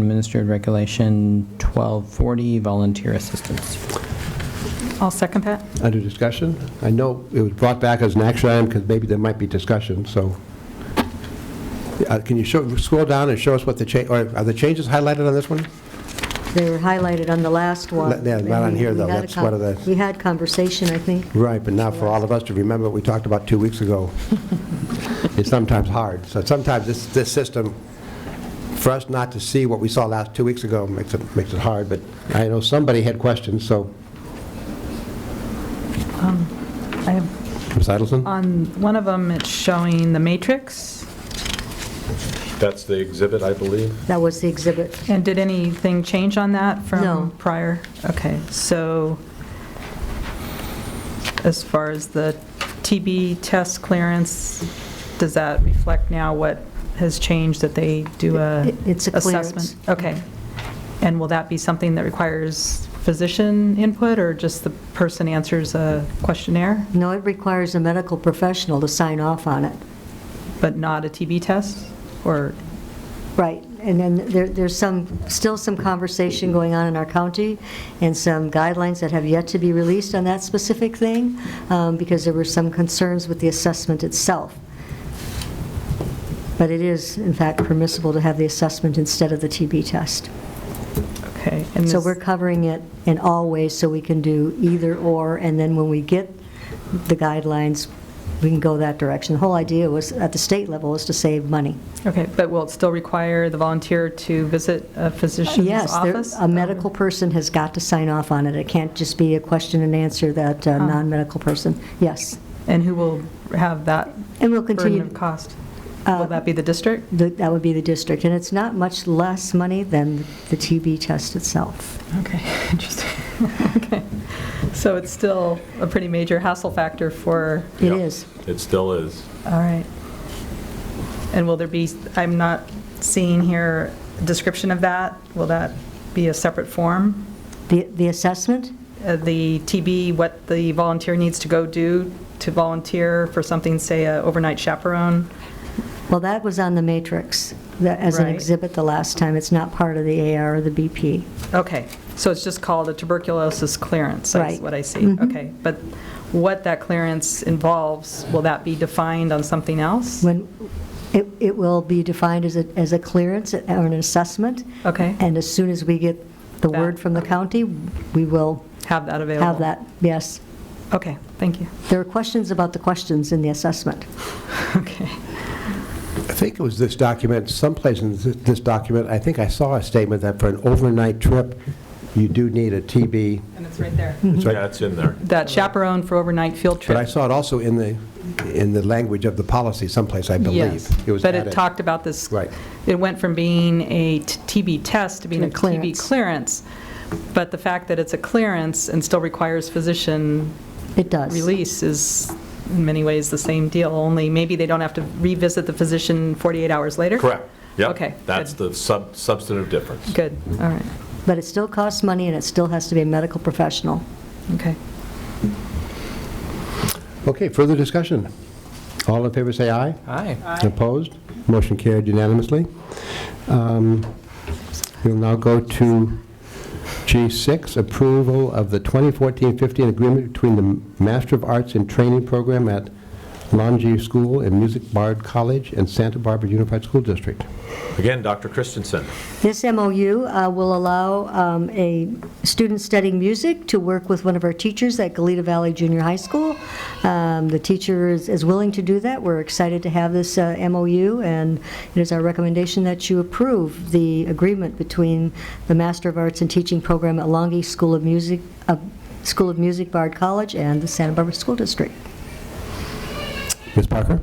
Administered Regulation 1240, volunteer assistance. I'll second that. Under discussion? I know it was brought back as an action item because maybe there might be discussion, so. Uh, Can you show, scroll down and show us what the change, or are the changes highlighted on this one? They were highlighted on the last one. Yeah, not on here, though. We had a That's con- one of the- We had conversation, I think. Right, but now for all of us to remember what we talked about two weeks ago, it's sometimes hard. So sometimes this, this system, for us not to see what we saw last, two weeks ago, makes it, makes it hard, but I know somebody had questions, so, Um, I have, Ms. Idelson? on one of them, it's showing the matrix, That's the exhibit, I believe. That was the exhibit. and did anything change on that No. from prior? Okay, so as far as the TB test clearance, does that reflect now what has changed, that they do a It- it's a clearance. assessment? Okay. And will that be something that requires physician input, or just the person answers a questionnaire, No, it requires a medical professional to sign off on it. but not a TB test? Or Right, and then there, there's some, still some conversation going on in our county, and some guidelines that have yet to be released on that specific thing, um, because there were some concerns with the assessment itself. But it is, in fact, permissible to have the assessment instead of the TB test. Okay. and So this- we're covering it in all ways, so we can do either or, and then when we get the guidelines, we can go that direction. The whole idea was, at the state level, is to save money. Okay, but will it still require the volunteer to visit a physician's Yes, there- office? Oh. a medical person has got to sign off on it. It can't just be a question and answer that Oh. uh, non-medical person, yes. And who will have that And we'll burden continue, of cost? Uh, Will that be the district? th- that would be the district, and it's not much less money than the TB test itself. Okay, interesting. Okay. So it's still a pretty major hassle factor for, It Yeah. is. It still is. all right. And will there be, I'm not seeing here a description of that. Will that be a separate form? The the assessment, Uh, The TB, what the volunteer needs to go do to volunteer for something, say, a overnight chaperone? well, that was on the matrix, that- as an Right. exhibit the last time. It's not part of the AR or the BP. Okay, so it's just called a tuberculosis clearance, that's Right. Mm-hmm. what I see. Okay, but what that clearance involves, will that be defined on something else? When, it it will be defined as a as a clearance or an assessment, Okay, and as soon as we get the That- word from the county, we will have that available? have that, yes. Okay, thank you. There are questions about the questions in the assessment. Okay, I think it was this document, someplace in thi- this document, I think I saw a statement that for an overnight trip, you do need a TB. and it's right there. It's right- Yeah, it's in there. That chaperone for overnight field But I trip. saw it also in the, in the language of the policy someplace, I believe. Yes, It was but it added. talked about this, Right. it went from being a t- TB test to being To a a TB clearance. clearance, but the fact that it's a clearance and still requires physician It does. release is in many ways the same deal, only maybe they don't have to revisit the physician 48 hours later? Correct. Yep. Okay, That's good. the sub substantive difference. Good, all right, But it still costs money, and it still has to be a medical professional. okay. Okay, further discussion. All in favor, say aye. Hi. Opposed? Motion carried unanimously. Um, We'll now go to G6, approval of the 2014-15 agreement between the Master of Arts in Training Program at Longview School and Music Bard College and Santa Barbara Unified School District. Again, Dr. Christensen. This MOU uh, will allow um, a student studying music to work with one of our teachers at Galita Valley Junior High School. Um, The teacher is is willing to do that. We're excited to have this uh, MOU, and it is our recommendation that you approve the agreement between the Master of Arts in Teaching Program at Longview School of Music, uh, School of Music Bard College and the Santa Barbara School District. Ms. Parker?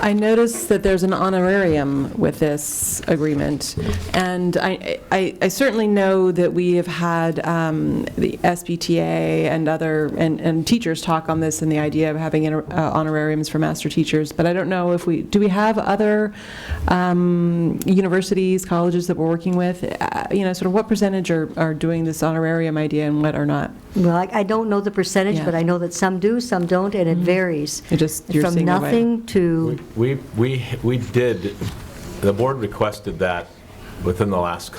I noticed that there's an honorarium with this agreement, and I- I I certainly know that we have had um, the SBTA and other, and and teachers talk on this and the idea of having inter- uh, honorariums for master teachers, but I don't know if we, do we have other um, universities, colleges that we're working with? Uh, You know, sort of what percentage are are doing this honorarium idea and what are not? Well, I I don't know the percentage, Yeah. Mm-hmm. but I know that some do, some don't, and it varies. It just- you're seeing the way- From nothing to... We, we, we did, the board requested that within the last couple